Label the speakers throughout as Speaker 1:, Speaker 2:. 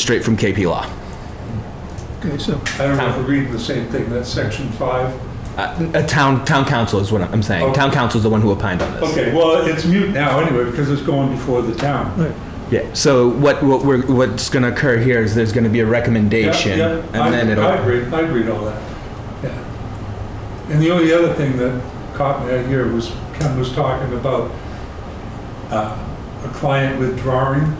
Speaker 1: straight from KP Law.
Speaker 2: Okay, so,
Speaker 3: I don't know if we're reading the same thing, that's section five.
Speaker 1: Uh, A town, town council is what I'm saying.
Speaker 3: Okay.
Speaker 1: Town council is the one who opined on this.
Speaker 3: Okay, well, it's mute now anyway, because it's going before the town.
Speaker 2: right,
Speaker 1: Yeah, so what, what we're, what's gonna occur here is there's gonna be a
Speaker 3: Yeah,
Speaker 1: recommendation
Speaker 3: yeah, I-
Speaker 1: and then
Speaker 3: I
Speaker 1: it'll,
Speaker 3: agree, I agree to all that, yeah. And the only other thing that caught me out here was Ken was talking about uh, a client withdrawing.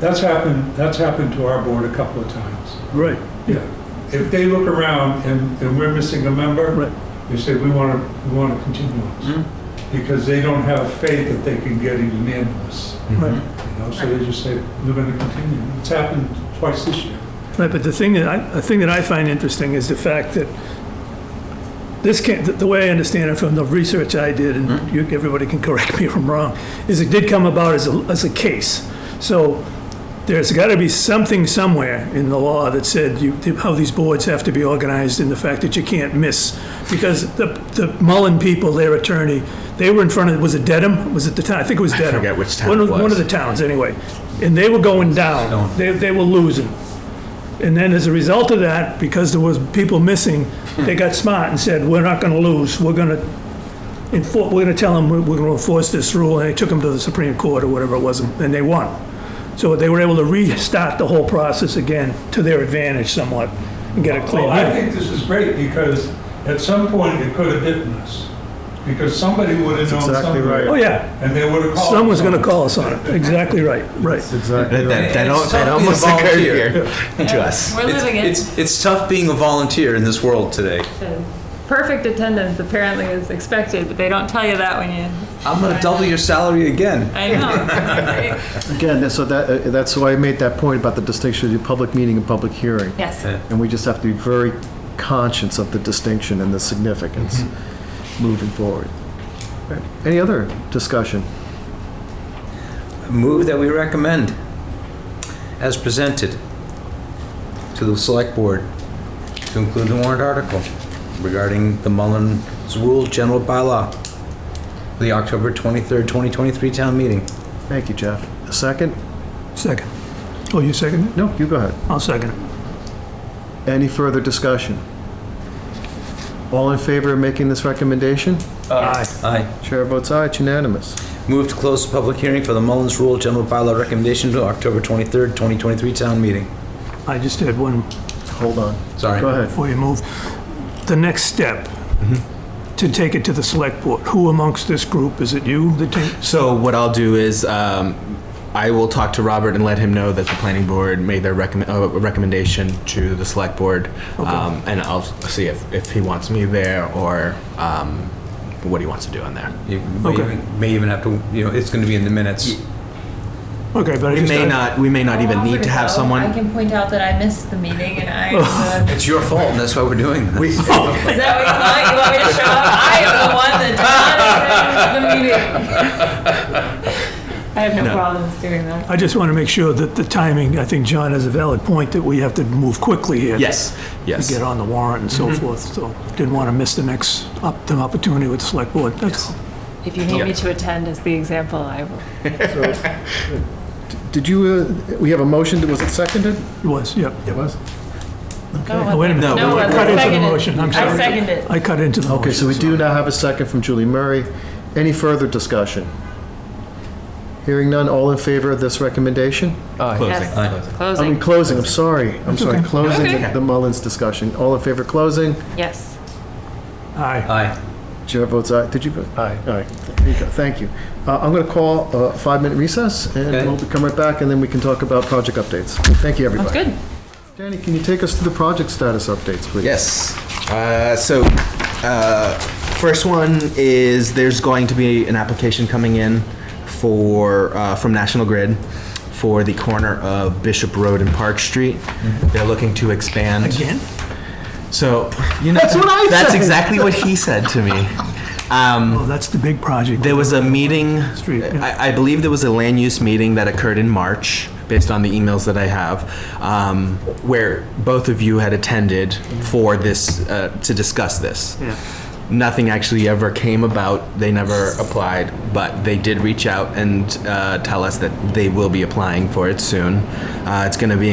Speaker 3: That's happened, that's happened to our board a couple of times.
Speaker 2: right,
Speaker 3: Yeah. If they look around and, and we're missing a member,
Speaker 2: right.
Speaker 3: they say, we want to, we want to continue
Speaker 1: Mm.
Speaker 3: on. Because they don't have faith that they can get a unanimous,
Speaker 2: Right,
Speaker 3: you know, so they just say, we're going to continue. It's happened twice this year.
Speaker 2: right, but the thing that I, the thing that I find interesting is the fact that this came, the- the way I understand it from the research I did, and
Speaker 1: Mm-hmm.
Speaker 2: you, everybody can correct me if I'm wrong, is it did come about as a, as a case. So there's gotta be something somewhere in the law that said you, how these boards have to be organized and the fact that you can't miss. Because the, the Mullen people, their attorney, they were in front of, was it Dedham? Was it the town? I think it was Dedham.
Speaker 1: forget which town
Speaker 2: One of-
Speaker 1: it was. Oh.
Speaker 2: One of the towns, anyway. And they were going
Speaker 1: Stone.
Speaker 2: down. They, they were losing. And then as a result of that, because there was people missing, they got smart and said, we're not gonna lose, we're gonna enfor, we're gonna tell them we're we're gonna enforce this rule, and they took them to the Supreme Court or whatever it was, and they won. So they were able to restart the whole process again to their advantage somewhat, and get a clean
Speaker 3: Well, I
Speaker 2: hit.
Speaker 3: think this is great because at some point it could have bitten us. Because somebody would have known
Speaker 4: exactly
Speaker 3: something.
Speaker 4: right.
Speaker 2: Oh, yeah,
Speaker 3: And they would have called.
Speaker 2: someone's gonna
Speaker 3: someone.
Speaker 2: call us on it, exactly right, right.
Speaker 4: That's exactly
Speaker 1: that, that, that
Speaker 5: It's
Speaker 1: al- that
Speaker 5: something
Speaker 1: almost
Speaker 5: about
Speaker 1: occurred
Speaker 5: here.
Speaker 1: here to us.
Speaker 6: We're living it.
Speaker 5: It's, it's tough being a volunteer in this world today.
Speaker 6: And Perfect attendance apparently is expected, but they don't tell you that when you,
Speaker 5: I'm gonna double your salary again.
Speaker 6: I know.
Speaker 4: Again, so that, uh, that's why I made that point about the distinction between public meeting and public hearing.
Speaker 6: Yes.
Speaker 4: And we just have to be very conscious of the distinction and the significance moving forward. Any other discussion?
Speaker 5: Move that we recommend as presented to the select board to include the warrant article regarding the Mullins Rule General Bylaw, for the October 23rd, 2023 town meeting.
Speaker 4: Thank you, Jeff. A second?
Speaker 2: Second. Oh, you second it?
Speaker 4: No, you go ahead.
Speaker 2: I'll second it.
Speaker 4: Any further discussion? All in favor of making this recommendation?
Speaker 2: Aye.
Speaker 5: Aye.
Speaker 4: Chair votes aye, it's unanimous.
Speaker 5: Move to close the public hearing for the Mullins Rule General Bylaw recommendation to October 23rd, 2023 town meeting.
Speaker 2: I just had one
Speaker 4: Hold on.
Speaker 5: Sorry.
Speaker 4: Go ahead.
Speaker 2: before you move, the next step, to take it to the select board, who amongst this group, is it you that take?
Speaker 1: So what I'll do is, um, I will talk to Robert and let him know that the planning board made their recommend, uh, recommendation to the select board. Um, and I'll see if, if he wants me there or, um, what he wants to do on there.
Speaker 5: You may
Speaker 2: Okay.
Speaker 5: even- may even have to, you know, it's going to be in the minutes.
Speaker 2: Okay, but I
Speaker 1: We
Speaker 2: just.
Speaker 1: may
Speaker 2: I-
Speaker 1: not, we may not even need to have
Speaker 6: I
Speaker 1: someone.
Speaker 6: can point out that I missed the meeting and I am the,
Speaker 5: It's your fault, and that's why we're doing this.
Speaker 1: We,
Speaker 6: is that what you want? You want me to show up? I am the one that did not attend the meeting. I have no
Speaker 1: No.
Speaker 6: problems doing that.
Speaker 2: I just want to make sure that the timing, I think John has a valid point, that we have to move quickly here.
Speaker 1: yes,
Speaker 2: To
Speaker 1: yes. Mm-hmm.
Speaker 2: get on the warrant and so forth, so didn't want to miss the next, up the opportunity with the select board, that's all.
Speaker 6: If you need me to attend as the example, I will.
Speaker 4: Did you, uh, we have a motion, was it seconded?
Speaker 2: It was, yep.
Speaker 4: It was.
Speaker 2: Oh, wait a minute.
Speaker 1: No,
Speaker 2: I
Speaker 1: I
Speaker 2: cut into the
Speaker 6: seconded.
Speaker 2: motion, I'm
Speaker 6: I
Speaker 2: sorry.
Speaker 6: seconded.
Speaker 2: I cut into the motion.
Speaker 4: Okay, so we do now have a second from Julie Murray. Any further discussion? Hearing none, all in favor of this recommendation?
Speaker 1: Closing,
Speaker 6: Yes.
Speaker 1: closing.
Speaker 4: I
Speaker 6: Closing,
Speaker 4: mean, closing, I'm sorry, I'm sorry,
Speaker 2: okay.
Speaker 4: closing
Speaker 6: Okay.
Speaker 4: the- the Mullins discussion. All in favor of closing?
Speaker 6: yes.
Speaker 4: Uh,
Speaker 2: Aye,
Speaker 5: Aye.
Speaker 4: Chair votes aye. Did you vote? Aye. Aye. There you go. Thank you. Uh, I'm going to call a five-minute recess, and
Speaker 5: Okay.
Speaker 4: we'll come right back, and then we can talk about project updates. Thank you, everybody.
Speaker 6: That's good.
Speaker 4: Danny, can you take us through the project status updates, please?
Speaker 1: Yes. Uh, so, uh, first one is there's going to be an application coming in for uh, from National Grid for the corner of Bishop Road and Park Street. They're looking to expand.
Speaker 2: again?
Speaker 1: So, you know, that's
Speaker 4: what I
Speaker 1: That's
Speaker 4: said.
Speaker 1: exactly what he said to me. Um,
Speaker 2: Oh, that's the big project.
Speaker 1: there was a meeting.
Speaker 2: Street, yeah.
Speaker 1: I, I believe there was a land use meeting that occurred in March, based on the emails that I have, um, where both of you had attended for this uh, to discuss this. Nothing actually ever came about. They never applied, but they did reach out and uh, tell us that they will be applying for it soon. Uh, it's going to be